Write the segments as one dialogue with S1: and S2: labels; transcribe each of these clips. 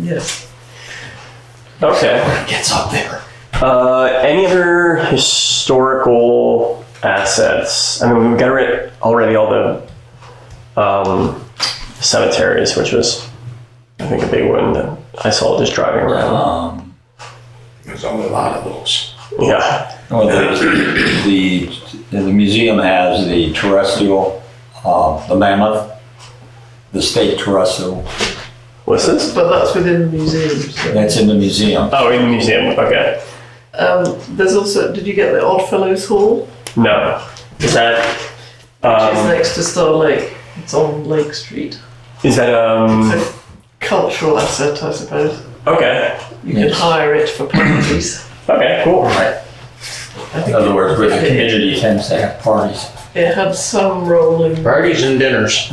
S1: Yes.
S2: Okay.
S3: Gets up there.
S2: Uh, any other historical assets? I mean, we've got rid already all the um, cemeteries, which was, I think, a big one that I saw just driving around.
S3: Um,
S4: There's a lot of those.
S2: Yeah.
S3: well, the, the, the museum has the terrestrial, uh, the mammoth, the state terrestrial,
S2: What's this?
S1: But that's within the museum. So.
S3: that's in the museum.
S2: Oh, in the museum. Okay.
S1: Um, there's also, did you get the Oddfellows Hall?
S2: No. Is that?
S1: Which is
S2: Um,
S1: next to Star Lake. It's on Lake Street.
S2: is that
S1: It's
S2: um?
S1: a cultural asset, I suppose.
S2: Okay.
S1: You can
S3: Yes.
S1: hire it for parties.
S2: Okay. Cool.
S1: I
S3: In
S1: think
S3: other
S1: it,
S3: words, where the community tends to have parties.
S1: it had some role in.
S4: Parties and dinners.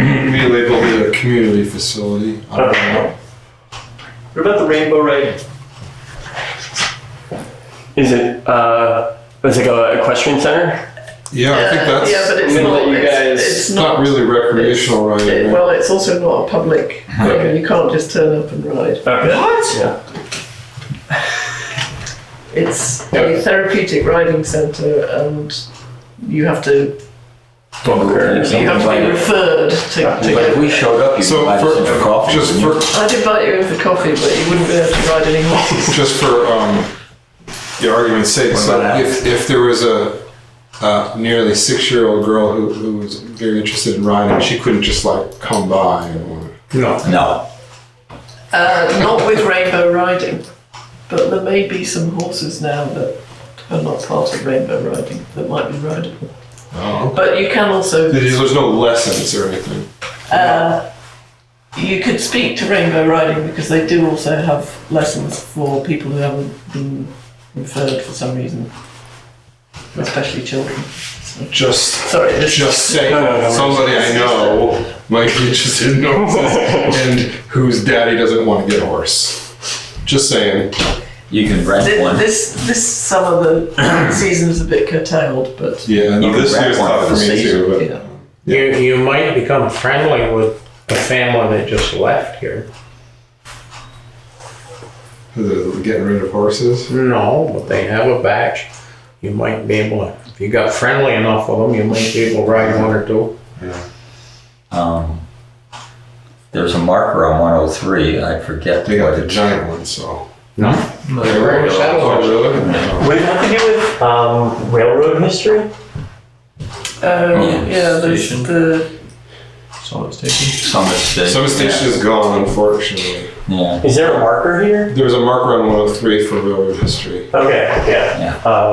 S5: Relabeled it a community facility. I don't know.
S6: What about the Rainbow Ride?
S2: Is it uh? It's like a equestrian center.
S5: Yeah, I think that's
S1: yeah, but it's
S6: I'm gonna
S1: not.
S6: let you
S1: It's,
S6: guys-
S1: it's
S5: not
S1: not.
S5: really recreational right
S1: it-
S5: away.
S1: well, it's also not a public.
S2: Okay.
S1: You can't just turn up and ride.
S2: Okay.
S6: What?
S1: It's a therapeutic riding centre, and you have to you have to be referred to. to
S3: But if we showed up, you'd
S5: So
S3: invite us in for
S5: for,
S3: coffee.
S5: just
S3: wouldn't
S5: for,
S1: I'd invite you in for coffee, but you wouldn't be able to ride any horses.
S5: just for, um, your argument's sake,
S3: What
S5: so
S3: about
S5: if, if there was a, uh, nearly six-year-old girl who, who was very interested in riding, she couldn't just like come by and wanna-
S4: No.
S3: you? No,
S1: Uh, not with rainbow riding, but there may be some horses now that are not part of rainbow riding that might be riding.
S5: Oh.
S1: But you can also
S5: There's there's no lessons or anything.
S1: you could speak to rainbow riding because they do also have lessons for people who haven't been referred for some reason, especially children.
S5: Just,
S1: Sorry, this
S5: just saying,
S2: No, no, no,
S5: somebody I know might be interested in horses and whose daddy doesn't want to get a horse. Just saying.
S3: you can rent
S1: This,
S3: one.
S1: this, this summer the season's a bit curtailed, but
S5: Yeah,
S3: You
S5: no,
S3: can
S5: this
S3: wrap
S5: year's
S3: one
S5: tough
S3: for the
S5: for me
S3: season,
S5: too. But
S1: yeah.
S6: You, you might become friendly with the family that just left here.
S5: The- getting rid of horses.
S6: No, but they have a batch. You might be able to, if you got friendly enough with them, you might be able to ride one or two.
S3: Um, There's a marker on 103, I forget
S5: They got
S3: what
S5: the
S3: it,
S5: giant ones, so.
S6: No?
S5: They were-
S6: regular
S5: oh,
S6: ones.
S5: really?
S2: Would it have to do with um railroad history?
S1: Um, yeah, there's
S3: Station.
S1: the
S3: Summit Station? Summit Station.
S5: Some station is gone, unfortunately.
S3: Yeah,
S2: Is there a marker here?
S5: There was a marker on 103 for railroad history.
S2: Okay. Yeah. Um.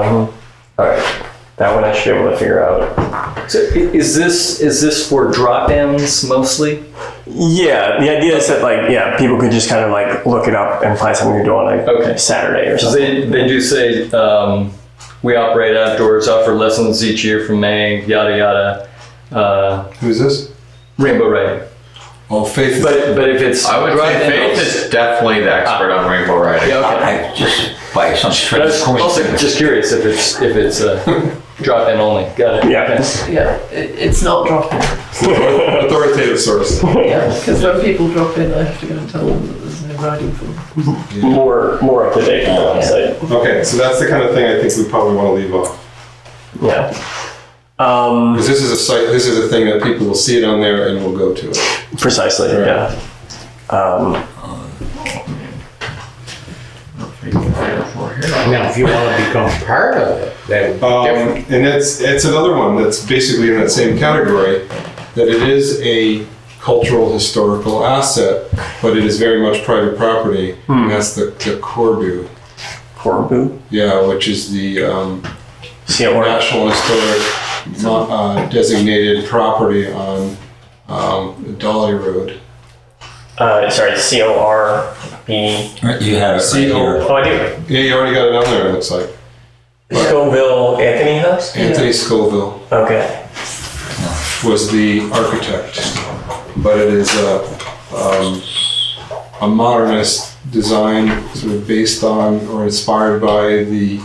S2: All right. That one I should be able to figure out.
S7: So i- is this is this for drop-ins mostly?
S2: Yeah. The idea is that like yeah, people could just kind of like look it up and find something to do on like
S7: Okay.
S2: Saturday or
S7: Because
S2: something.
S7: they, they do say um, we operate outdoors, offer lessons each year from May, yada yada. Uh,
S5: Who's this?
S7: Rainbow Riding.
S5: Oh, Faith.
S7: But but if it's Ah.
S8: I would say Faith is definitely the expert on rainbow riding.
S7: yeah, okay.
S3: I just by some
S7: But I
S3: strange
S7: was also
S3: coincidence.
S7: just curious if it's if it's uh, drop in only. Got it.
S2: Yeah.
S1: yeah, it, it's not dropping.
S5: Authoritative source.
S1: Yeah, because when people drop in, I have to go and tell them that there's no riding for them.
S2: More more up to date than the website.
S5: Okay, so that's the kind of thing I think we probably want to leave off.
S2: Yeah. Um.
S5: Because this is a site, this is a thing that people will see it on there and will go to it.
S2: Precisely.
S5: Right.
S2: Yeah. Um.
S6: Now, if you want to become part of it, that would be different.
S5: Um, and it's it's another one that's basically in that same category, that it is a cultural historical asset, but it is very much private property, and that's the, the Corbu,
S2: Corbu.
S5: yeah, which is the um,
S2: See it work.
S5: national historic mo- uh, designated property on um, Dolly Road.
S2: Uh, sorry, C O R B. E.
S3: You have it right here.
S2: Oh, I do.
S5: Yeah, you already got it on there. It looks like
S2: Scoville Anthony House.
S5: Anthony Scoville
S2: Okay.
S5: was the architect, but it is a, um, a modernist design sort of based on or inspired by the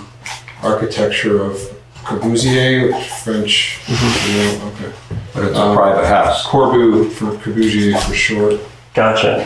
S5: architecture of Corbusier, which French. you know, okay.
S3: But it's a
S5: Um,
S3: private house.
S5: Corbu for Corbusier for short.
S2: Gotcha.